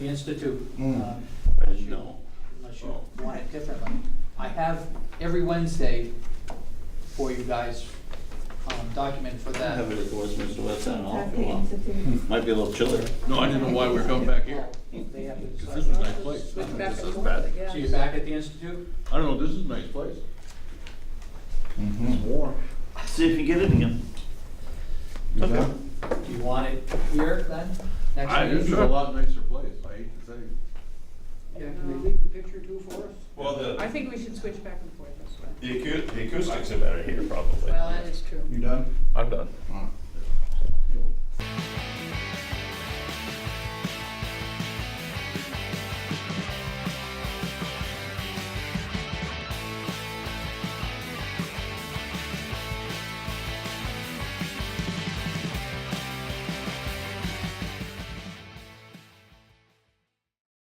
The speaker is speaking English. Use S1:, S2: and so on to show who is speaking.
S1: the institute.
S2: Mm.
S1: um,
S3: I didn't know.
S1: unless you want it differently. I have every Wednesday for you guys, um, document for
S3: I have
S1: that.
S3: it at the Westminster West Town Hall
S4: At
S3: if
S4: the
S3: you want.
S4: Institute.
S3: Might be a little chiller.
S5: No, I didn't know why we were coming back here.
S1: They have to
S5: Because
S1: decide.
S5: this was a nice place. This is-
S4: Back
S5: this
S4: and
S5: is
S4: forth,
S5: bad.
S4: yeah.
S1: So you're back at the institute?
S5: I don't know, this is a nice place.
S2: Mhm.
S5: warm.
S3: See if you get it again.
S2: Okay.
S1: Do you want it here then, next
S5: I,
S1: meeting?
S5: this is a lot nicer place, I hate to say.
S1: Yeah, can they leave the picture too for us?
S6: Well,
S4: I
S6: the,
S4: think we should switch back and forth this way.
S6: the acou- the acoustics are better here, probably.
S4: Well, that is true.
S2: You done?
S5: I'm done.
S2: All right.